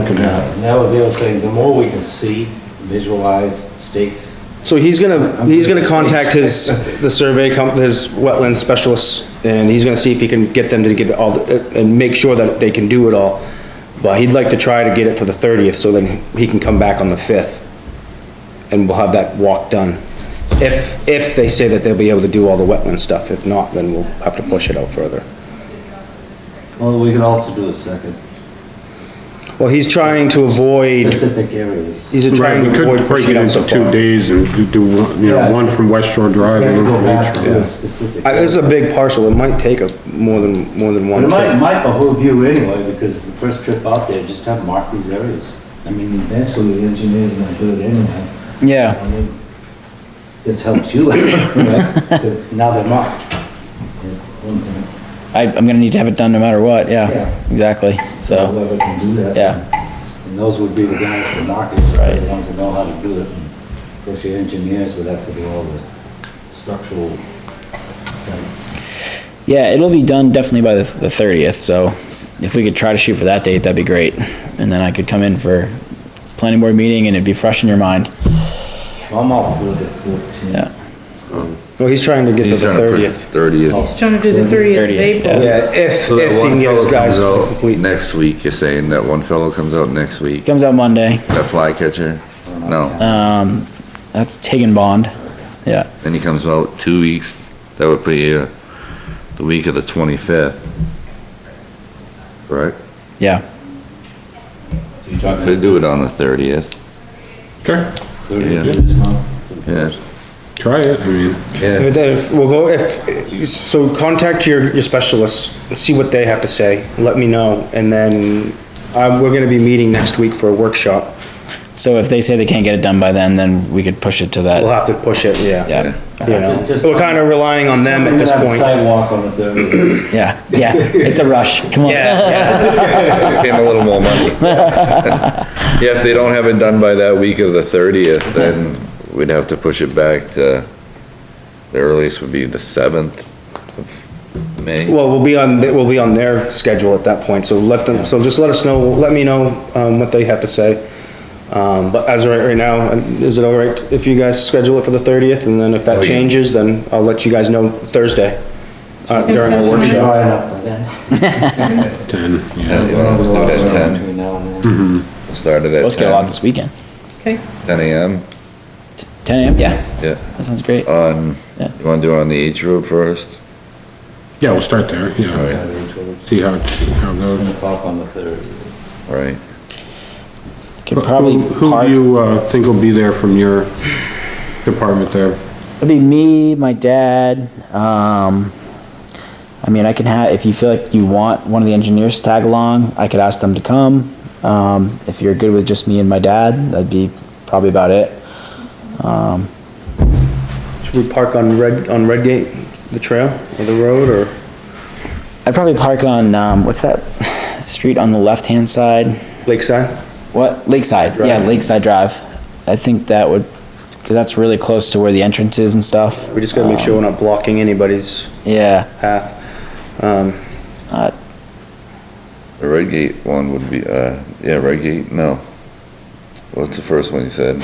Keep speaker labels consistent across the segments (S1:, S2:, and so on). S1: looking at.
S2: And that was the other thing, the more we can see, visualize stakes,
S3: So he's gonna, he's gonna contact his, the survey comp, his wetland specialists, and he's gonna see if he can get them to get all, the- uh, and make sure that they can do it all. But he'd like to try to get it for the thirtieth, so then he can come back on the fifth. And we'll have that walk done. If, if they say that they'll be able to do all the wetland stuff, if not, then we'll have to push it out further.
S2: well, we could also do a second,
S3: Well, he's trying to avoid,
S2: specific areas.
S3: he's
S1: Right,
S3: trying
S1: we
S3: to
S1: could
S3: avoid
S1: break
S3: pushing
S1: it
S3: it out so
S1: into two
S3: far.
S1: days and do- do, one- you
S2: Yeah.
S1: know, one from West Shore Drive
S2: Gotta
S1: and
S2: go
S1: one
S2: back
S1: from
S2: to
S1: Beach.
S2: a specific.
S3: Uh, this is a
S2: area.
S3: big parcel, it might take a, more than, more than
S2: But
S3: one
S2: it might, it
S3: trip.
S2: might behoove you anyway, because the first trip out there, just kind of mark these areas. I mean, eventually the engineer's gonna do it anyway.
S4: Yeah,
S2: I mean, This helps you, right? Because now they're marked. Yeah,
S4: I, I'm gonna need to have it done no matter what,
S2: Yeah.
S4: yeah, exactly, so,
S2: Whoever can do that.
S4: yeah,
S2: And those would be the guys to market, right, the
S4: Right.
S2: ones that know how to do it. And Of course, your engineers would have to do all the structural sense.
S4: yeah, it'll be done definitely by the, the thirtieth, so if we could try to shoot for that date, that'd be great, and then I could come in for planning board meeting and it'd be fresh in your mind,
S2: I'm all for the fourteen.
S4: yeah,
S3: Well, he's trying to get to
S5: He's
S3: the
S5: trying to push
S3: thirtieth.
S5: thirtieth.
S6: He's trying to do the 30th of
S4: 30th,
S6: April.
S3: Yeah, if,
S5: So
S3: if
S5: that
S3: he
S5: one
S3: can get his
S5: fellow
S3: guys
S5: comes
S3: to
S5: out
S3: complete.
S5: next week, you're saying that one fellow comes out next week,
S4: comes out Monday,
S5: that fly catcher? No,
S4: um, that's Tigan Bond, yeah,
S5: then he comes out two weeks, that would put you the week of the twenty-fifth. Right?
S4: yeah,
S2: So you're talking
S5: Could do it on the thirtieth,
S1: Okay,
S2: thirty
S5: yeah.
S2: units, huh?
S5: yeah.
S1: try it, I mean,
S5: Yeah,
S3: If- if- We'll go, if, so contact your, your specialists, see what they have to say, let me know, and then, uh, we're gonna be meeting next week for a workshop.
S4: so if they say they can't get it done by then, then we could push it to
S3: We'll
S4: that,
S3: have to push it, yeah.
S4: yeah,
S3: You know,
S2: Just-
S3: we're kinda relying on them at
S2: We're
S3: this
S2: gonna have a
S3: point.
S2: Sidewalk on the thirty.
S4: yeah, yeah, it's a rush, come on.
S3: Yeah,
S5: pay him a little more money. Yeah, if they don't have it done by that week of the thirtieth, then we'd have to push it back to, the earliest would be the seventh of May.
S3: well, we'll be on, th- we'll be on their schedule at that point, so let them, so just let us know, let me know, um, what they have to say. Um, but as of right, right now, is it all right if you guys schedule it for the thirtieth, and then if
S5: Oh,
S3: that
S5: yeah.
S3: changes, then I'll let you guys know Thursday. Uh, during our
S6: sounds
S3: workshop.
S6: good.
S2: Dry enough by then.
S1: ten,
S5: Yeah,
S1: yeah.
S5: you wanna do it at ten?
S2: Between now and then.
S5: Start it
S4: Let's get a lot
S5: at
S4: this weekend,
S6: Okay,
S5: 10 a.m.?
S4: ten AM, yeah,
S5: Yeah.
S4: that sounds great,
S3: Uh,
S5: On,
S4: Yeah.
S5: you wanna do it on the H Road first?
S1: Yeah, we'll start there, yeah.
S2: Start each other.
S1: See how, it- how it
S2: Seven
S1: goes.
S2: o'clock on the third.
S5: Right.
S4: could
S1: Who-
S4: probably
S1: Who
S4: park.
S1: do you, uh, think will be there from your department there?
S4: It'd be me, my dad. Um, I mean, I can have, if you feel like you want one of the engineers to tag along, I could ask them to come. Um, if you're good with just me and my dad, that'd be probably about it.
S3: Should we park on Red, on Redgate, the trail or the road or?
S4: I'd probably park on, um, what's that street on the left-hand side?
S3: Lakeside?
S4: What? Lakeside. Yeah,
S3: Drive.
S4: Lakeside Drive. I think that would, cause that's really close to where the entrance is and stuff.
S3: We just gotta make sure we're not blocking anybody's
S4: Yeah.
S3: path. Um,
S4: Uh,
S5: The Redgate one would be, uh, yeah, Redgate, no. What's the first one you said?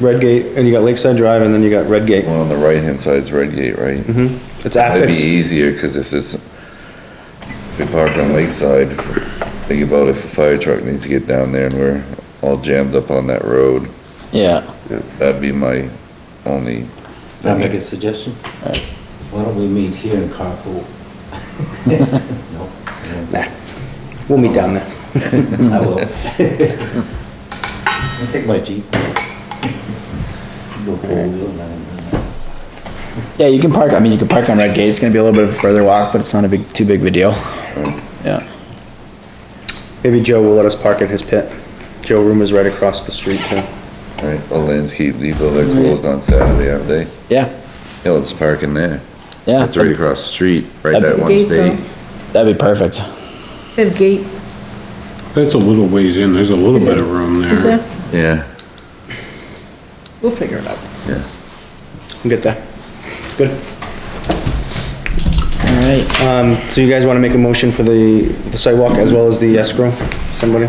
S3: Redgate, and you got Lakeside Drive and then you got Redgate.
S5: One on the right-hand side's Redgate, right?
S4: Mm-hmm.
S3: It's af,
S5: That'd be
S3: it's,
S5: easier, cause if there's, if we park on Lakeside, think about if a fire truck needs to get down there and we're all jammed up on that road,
S4: yeah.
S5: that'd be my only,
S2: Can I make a suggestion? Why don't we meet here in carpool? No,
S3: nah, we'll meet down there.
S2: I will. I'll take my Jeep. Go four-wheel and then-
S4: Yeah, you can park, I mean, you can park on Red Gate. It's gonna be a little bit of a further walk, but it's not a big, too big of a deal. Yeah.
S3: Maybe Joe will let us park in his pit. Joe Room is right across the street too.
S5: right, a landscape depot, they're
S4: Mm-hmm.
S5: closed on Saturday, aren't they?
S4: Yeah,
S5: Yeah, let's park in there.
S4: yeah,
S5: It's right across the street, right
S4: That'd
S5: at
S4: be
S5: one
S6: gate
S5: state.
S4: that'd be perfect.
S6: they have gate,
S1: That's a little ways in, there's a little
S6: Is
S1: bit
S6: it-
S1: of room there.
S6: is there?
S5: Yeah,
S6: We'll figure it out.
S5: yeah.
S3: We'll get there. Good.
S4: All right,
S3: Um, so you guys wanna make a motion for the, the sidewalk as well as the escrow? Somebody?